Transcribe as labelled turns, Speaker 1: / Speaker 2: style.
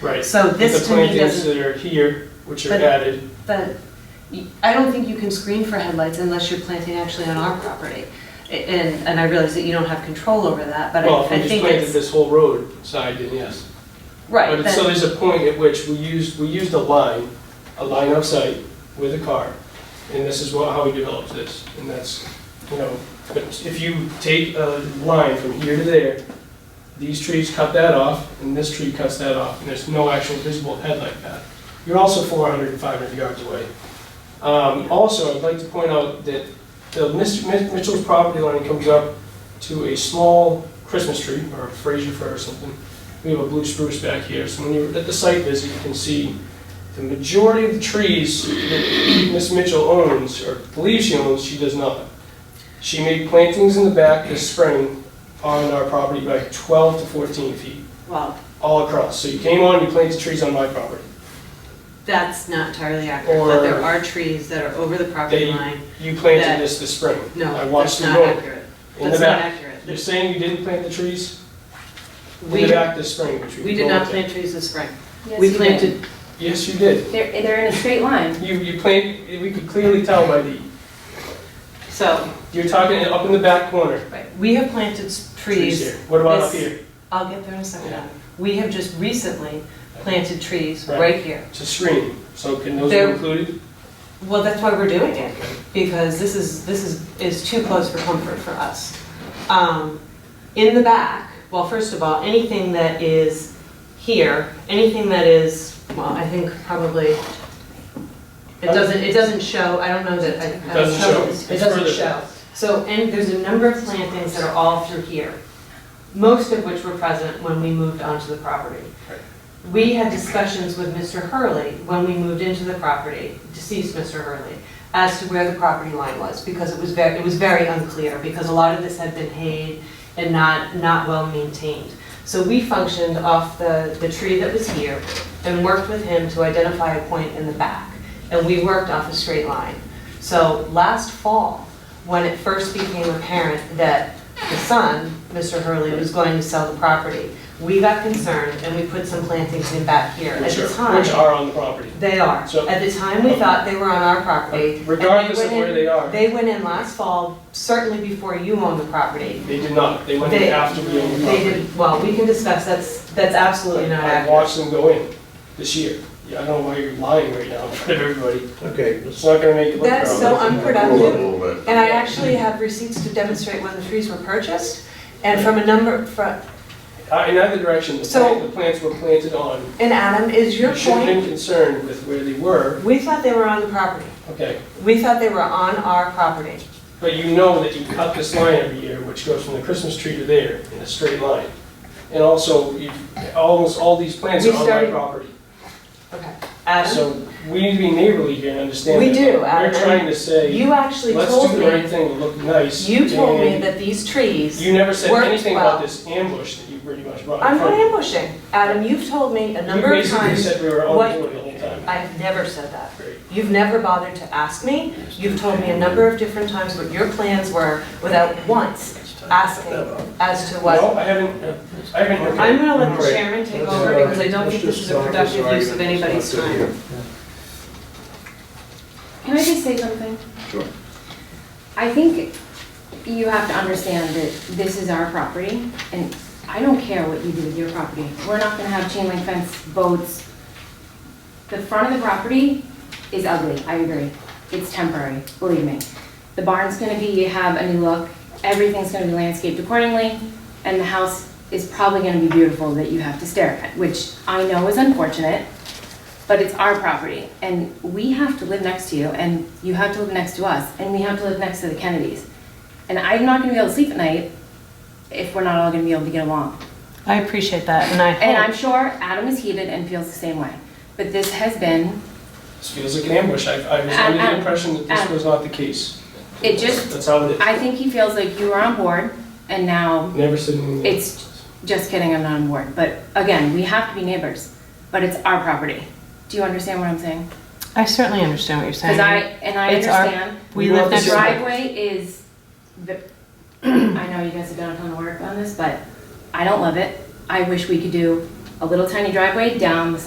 Speaker 1: Right.
Speaker 2: So this to me
Speaker 1: The plantings
Speaker 2: doesn't,
Speaker 1: that are here, which are
Speaker 2: But-
Speaker 1: added,
Speaker 2: but y- I don't think you can screen for headlights unless you're planting actually on our property. A- And, and I realize that you don't have control over that, but
Speaker 1: well, if
Speaker 2: I
Speaker 1: we
Speaker 2: I
Speaker 1: just
Speaker 2: think
Speaker 1: planted
Speaker 2: it's,
Speaker 1: this whole road side, then yes.
Speaker 2: right,
Speaker 1: But so
Speaker 2: then,
Speaker 1: there's a point at which we used, we used a line, a line of sight with a car, and this is what, how we developed this, and that's, you know, but if you take a line from here to there, these trees cut that off, and this tree cuts that off, and there's no actual visible headlight path. You're also 400 and 500 yards away. Um, Also, I'd like to point out that the Mr. Mi- Mitchell's property line comes up to a small Christmas tree, or a Fraser fir or something, we have a blue spruce back here, so when you're at the site visit, you can see the majority of the trees that Miss Mitchell owns, or believes she owns, she does not. She made plantings in the back this spring on our property by 12 to 14 feet,
Speaker 2: well,
Speaker 1: all across. So you came on, you planted trees on my property.
Speaker 2: that's not entirely accurate, but there
Speaker 1: Or-
Speaker 2: are trees that are over the property
Speaker 1: They-
Speaker 2: line.
Speaker 1: You planted
Speaker 2: That-
Speaker 1: this this spring.
Speaker 2: No,
Speaker 1: I watched you
Speaker 2: that's not
Speaker 1: do it
Speaker 2: accurate.
Speaker 1: in the
Speaker 2: That's not
Speaker 1: back. You're
Speaker 2: accurate.
Speaker 1: saying you didn't plant the trees in
Speaker 2: We-
Speaker 1: the back this spring, which we
Speaker 2: We did not
Speaker 1: planted.
Speaker 2: plant trees this spring.
Speaker 3: Yes,
Speaker 2: We
Speaker 3: you
Speaker 2: planted,
Speaker 1: Yes, you did.
Speaker 3: did. They're, they're in a straight line.
Speaker 1: You, you plant, we could clearly tell by the,
Speaker 2: so,
Speaker 1: you're talking up in the back corner.
Speaker 2: we have planted s- trees
Speaker 1: here. What about up
Speaker 2: this-
Speaker 1: here?
Speaker 2: I'll get there in a second.
Speaker 1: Yeah.
Speaker 2: We have just recently planted trees
Speaker 1: Right.
Speaker 2: right here.
Speaker 1: It's a screen, so can those be
Speaker 2: There-
Speaker 1: included?
Speaker 2: Well, that's why we're doing it, because this is, this is, is too close for comfort for us. Um, In the back, well, first of all, anything that is here, anything that is, well, I think probably, it doesn't, it doesn't show, I don't know that, I- I.
Speaker 1: It doesn't
Speaker 2: don't know.
Speaker 1: show.
Speaker 2: It
Speaker 1: It's
Speaker 2: doesn't
Speaker 1: further.
Speaker 2: show. So, and there's a number of plantings that are all through here, most of which were present when we moved onto the property.
Speaker 1: Right.
Speaker 2: We had discussions with Mr. Hurley when we moved into the property, deceased Mr. Hurley, as to where the property line was, because it was very, it was very unclear, because a lot of this had been hayed and not, not well maintained. So we functioned off the, the tree that was here and worked with him to identify a point in the back. And we worked off a straight line. So last fall, when it first became apparent that the son, Mr. Hurley, was going to sell the property, we got concerned and we put some plantings in back here. At
Speaker 1: Which
Speaker 2: the
Speaker 1: are, which
Speaker 2: time,
Speaker 1: are on the property.
Speaker 2: they are.
Speaker 1: So-
Speaker 2: At the time, we thought they were on our property. and they
Speaker 1: Regardless of
Speaker 2: went
Speaker 1: where
Speaker 2: in-
Speaker 1: they are,
Speaker 2: They went in last fall, certainly before you owned the property.
Speaker 1: they did not, they went in
Speaker 2: They-
Speaker 1: after we owned the
Speaker 2: They
Speaker 1: property.
Speaker 2: did, well, we can discuss, that's, that's absolutely not
Speaker 1: I
Speaker 2: accurate.
Speaker 1: watched them go in this year. Yeah, I don't know why you're lying right now in front of everybody.
Speaker 4: Okay,
Speaker 1: It's not gonna make it look
Speaker 2: That's
Speaker 1: proper.
Speaker 2: so unproductive.
Speaker 4: roll it.
Speaker 2: And I actually have receipts to demonstrate when the trees were purchased and from a number, from,
Speaker 1: Uh, In either direction, the
Speaker 2: So-
Speaker 1: plant- the plants were planted on.
Speaker 2: and Adam, is your
Speaker 1: You should have been
Speaker 2: point,
Speaker 1: concerned with where they were,
Speaker 2: we thought they were on the property.
Speaker 1: okay?
Speaker 2: We thought they were on our property.
Speaker 1: But you know that you cut this line every year, which goes from the Christmas tree to there in a straight line. And also, you- almost all these plants
Speaker 2: We
Speaker 1: are on my
Speaker 2: started-
Speaker 1: property.
Speaker 2: Okay. Adam,
Speaker 1: So we need to be neighborly here and understand.
Speaker 2: We
Speaker 1: that.
Speaker 2: do,
Speaker 1: We're
Speaker 2: Adam.
Speaker 1: trying to say,
Speaker 2: you actually
Speaker 1: let's do
Speaker 2: told
Speaker 1: the right
Speaker 2: me,
Speaker 1: thing to look nice.
Speaker 2: you told me
Speaker 1: and
Speaker 2: that these trees.
Speaker 1: You never said
Speaker 2: worked
Speaker 1: anything about
Speaker 2: well.
Speaker 1: this ambush that you pretty much brought
Speaker 2: I'm
Speaker 1: in
Speaker 2: not
Speaker 1: front.
Speaker 2: ambushing. Adam, you've told me a number of
Speaker 1: You basically
Speaker 2: times,
Speaker 1: said we were
Speaker 2: what-
Speaker 1: all doing it the whole time.
Speaker 2: I've never said that.
Speaker 1: Great.
Speaker 2: You've never bothered to ask me. You've told me a number of different times what your plans were without once asking as to what.
Speaker 1: No, I haven't, I haven't.
Speaker 2: I'm gonna let the
Speaker 4: Right.
Speaker 2: chairman take over because I don't think this is a productive use of anybody's time.
Speaker 3: Can I just say something?
Speaker 4: Sure.
Speaker 3: I think you have to understand that this is our property, and I don't care what you do with your property. We're not gonna have chain link fence, boats. The front of the property is ugly, I agree. It's temporary, believe me. The barn's gonna be, have a new look, everything's gonna be landscaped accordingly, and the house is probably gonna be beautiful that you have to stare at, which I know is unfortunate, but it's our property, and we have to live next to you, and you have to live next to us, and we have to live next to the Kennedys. And I'm not gonna be able to sleep at night if we're not all gonna be able to get along.
Speaker 2: I appreciate that and I
Speaker 3: And I'm sure Adam is heated and feels the same way. But this has been,
Speaker 1: This feels like an ambush. I, I was
Speaker 3: Um,
Speaker 1: under the
Speaker 3: um,
Speaker 1: impression that this
Speaker 3: um,
Speaker 1: was not the case.
Speaker 3: it just-
Speaker 1: That's how it is.
Speaker 3: I think he feels like you were on board, and now,
Speaker 1: Never said anything.
Speaker 3: It's- just kidding, I'm not on board. But again, we have to be neighbors, but it's our property. Do you understand what I'm saying?
Speaker 2: I certainly understand what you're
Speaker 3: Because I, and I
Speaker 2: It's our-
Speaker 3: understand.
Speaker 1: We live
Speaker 3: The
Speaker 1: next door.
Speaker 3: driveway is, the- I know you guys have done a ton of work on this, but I don't love it. I wish we could do a a little tiny driveway down the